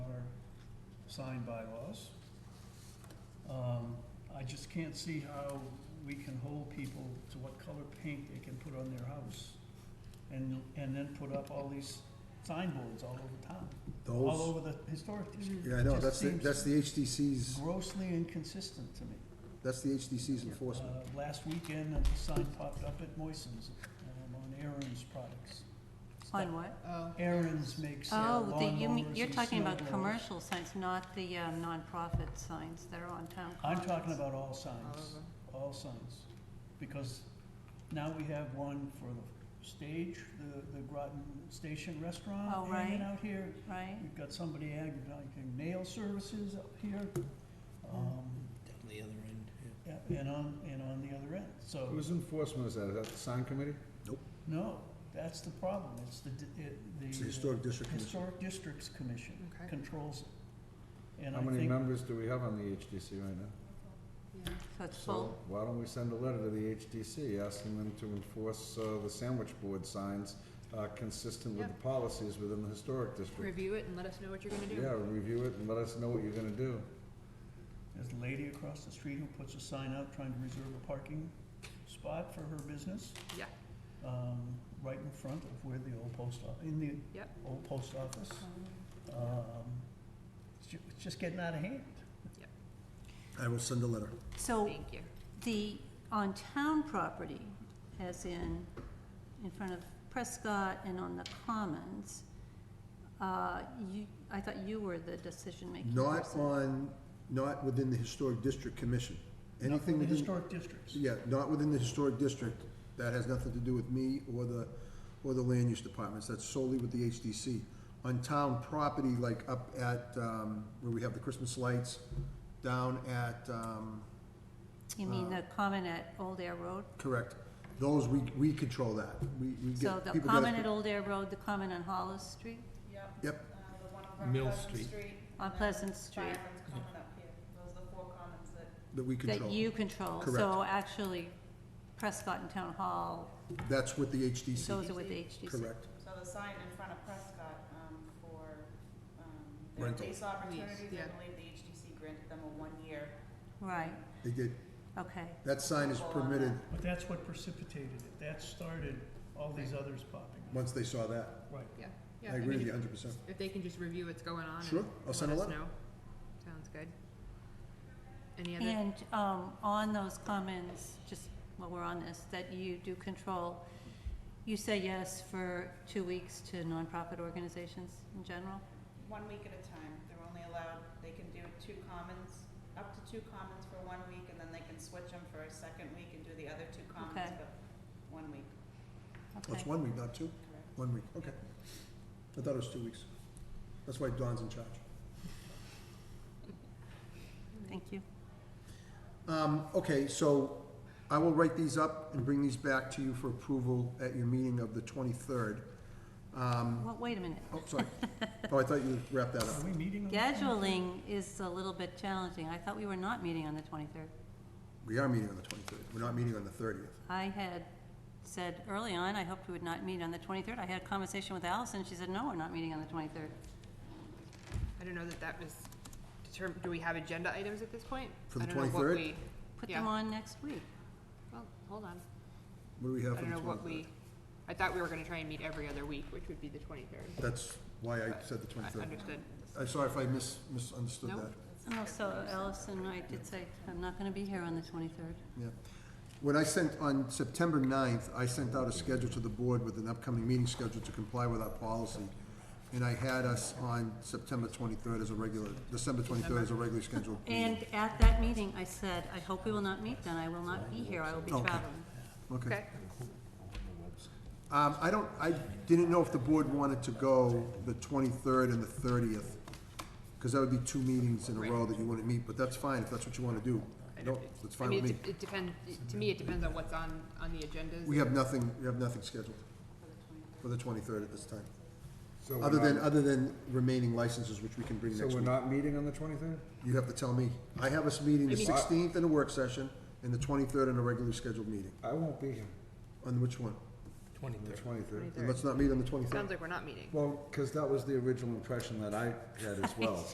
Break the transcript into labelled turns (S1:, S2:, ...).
S1: sign bylaws. Um, I just can't see how we can hold people to what color paint they can put on their house and, and then put up all these signboards all over town, all
S2: Those,
S1: over the historic district.
S2: yeah, I know,
S1: It
S2: that's,
S1: just
S2: the
S1: seems
S2: that's the HDC's,
S1: Grossly inconsistent to me.
S2: that's the HDC's enforcement.
S1: Uh, Last weekend, a sign popped up at Moissan's um, on Aaron's products.
S3: On what?
S4: Oh,
S1: Aaron's makes uh,
S3: Oh, the, you mean,
S1: lawnmowers
S3: you're
S1: and
S3: talking about
S1: snowblowers.
S3: commercial signs, not the um, nonprofit signs that are on town
S1: I'm
S3: commons.
S1: talking about all
S4: all
S1: signs,
S4: over.
S1: all signs. Because now we have one for the stage, the, the Groton Station
S3: Oh,
S1: Restaurant hanging
S3: right.
S1: out here.
S3: Right?
S1: We've got somebody advertising nail services up here. um,
S5: Down the other end, yeah.
S1: yeah, And on, and on the other end, so.
S6: Whose enforcement is that? Is that the sign committee?
S1: No, that's the problem, it's the, di- it- the.
S2: It's the Historic District Commission.
S1: Historic Districts Commission
S4: Okay.
S1: controls it. And
S6: How
S1: I
S6: many
S1: think,
S6: members do we have on the HDC right now?
S4: yeah.
S3: So it's
S6: So
S3: full?
S6: why don't we send a letter to the HDC asking them to enforce uh, the sandwich board signs uh, consistent with the policies within the historic district?
S4: Review it and let us know what you're gonna do.
S6: Yeah, review it and let us know what you're gonna do.
S1: there's a lady across the street who puts a sign out trying to reserve a parking spot for her business,
S4: Yeah.
S1: um, right in front of where the old post, o- in the
S4: Yep.
S1: old post office. Um, it's ju- it's just getting out of hand.
S2: I will send a letter.
S3: So
S4: Thank you.
S3: the, on town property, as in, in front of Prescott and on the commons, uh, you, I thought you were the decision-making
S2: Not
S3: person.
S2: on, not within the Historic District Commission.
S1: Not
S2: Anything
S1: The
S2: within,
S1: historic districts.
S2: yeah, not within the Historic District. That has nothing to do with me or the, or the land use departments. That's solely with the HDC. On town property, like up at, um, where we have the Christmas lights, down at, um,
S3: You mean
S2: uh,
S3: the common at Old Air Road?
S2: correct, those, we, we control that. We, we
S3: So
S2: get,
S3: the
S2: people get
S3: common
S2: us.
S3: at Old Air Road, the common on Hollis Street,
S7: Yep,
S2: Yep,
S7: uh, the one over on
S5: Mill
S7: Pleasant
S5: Street.
S7: Street.
S3: on
S7: and
S3: Pleasant
S7: then
S3: Street,
S7: Byron's Common up here, those are the four commons that
S2: that we
S3: that
S2: control.
S3: you control. So
S2: Correct.
S3: actually, Prescott and Town Hall,
S2: That's with the HDC,
S3: those are with the HDC.
S2: correct.
S7: So the sign in front of Prescott, um, for, um, their
S2: Rental.
S7: lease opportunities,
S4: yeah.
S7: I believe the HDC granted them a one-year.
S3: Right,
S2: They did,
S3: okay.
S2: that sign is permitted,
S1: But that's what precipitated it, that started all these others popping up.
S2: once they saw that.
S1: Right.
S4: Yeah.
S2: I
S4: Yeah, mean,
S2: agree with
S4: if-
S2: you hundred percent.
S4: If they can just review what's going on. and
S2: Sure, I'll
S4: let
S2: send a
S4: us
S2: letter.
S4: know. Sounds good. Any other?
S3: And um, on those comments, just while we're on this, that you do control, you say yes for two weeks to nonprofit organizations in general?
S7: One week at a time, they're only allowed, they can do two commons, up to two commons for one week, and then they can switch them for a second week and do the other two commons,
S3: Okay.
S7: but one week,
S2: That's
S3: Okay.
S2: one week, not two?
S7: correct?
S2: One week, okay. I thought it was two weeks. That's why Don's in charge.
S3: Thank you.
S2: Um, okay, so I will write these up and bring these back to you for approval at your meeting of the twenty-third. Um,
S3: Well, wait a minute.
S2: oh, sorry. Oh, I thought you wrapped that
S1: Are
S2: up.
S1: we meeting on the
S3: Scheduling is a little bit challenging. I thought we were not meeting on the 23rd.
S2: We are meeting on the twenty-third. We're not meeting on the thirtieth.
S3: I had said early on, I hoped we would not meet on the 23rd. I had a conversation with Allison, she said, no, we're not meeting on the 23rd.
S4: I don't know that that was determined. Do we have agenda items at this point?
S2: For the
S4: I don't know what
S2: 23rd?
S4: we-
S3: Put
S4: Yeah.
S3: them on next week.
S4: Well, hold on.
S2: What do we have
S4: I
S2: for
S4: don't
S2: the
S4: know what
S2: twenty-third?
S4: we, I thought we were gonna try and meet every other week, which would be the twenty-third.
S2: That's why I said the
S4: I
S2: twenty-third.
S4: understood.
S2: I'm sorry if I mis- misunderstood
S4: No.
S2: that.
S3: Oh, so Allison, I did say, I'm not gonna be here on the 23rd.
S2: Yeah. When I sent, on September 9th, I sent out a schedule to the board with an upcoming meeting schedule to comply with our policy. And I had us on September 23rd as a regular, December 23rd as a regularly scheduled meeting.
S3: And at that meeting, I said, I hope we will not meet then, I will not be here, I will be
S2: Okay.
S3: traveling.
S2: Okay.
S4: Okay,
S2: Um, I don't, I didn't know if the board wanted to go the 23rd and the 30th, because that would be two meetings in a row that you wouldn't meet, but that's fine if that's what you want to do.
S4: I
S2: No,
S4: don't-
S2: that's
S4: I
S2: fine with
S4: mean,
S2: me.
S4: it- it depends, to me, it depends on what's on, on the agendas.
S2: We have nothing, we have nothing scheduled for the 23rd at this time.
S6: So we're
S2: Other than,
S6: not-
S2: other than remaining licenses, which we can bring
S6: So
S2: next
S6: we're
S2: week.
S6: not meeting on the twenty-third?
S2: You have to tell me. I have us meeting the
S4: I mean-
S2: sixteenth in a work session and the twenty-third in a regularly scheduled meeting.
S6: I won't be here
S2: On which one?
S6: on the
S5: Twenty-third.
S6: twenty-third.
S2: And let's not meet on the twenty-third.
S4: Sounds like we're not meeting.
S6: Well, because that was the original impression that I had as well,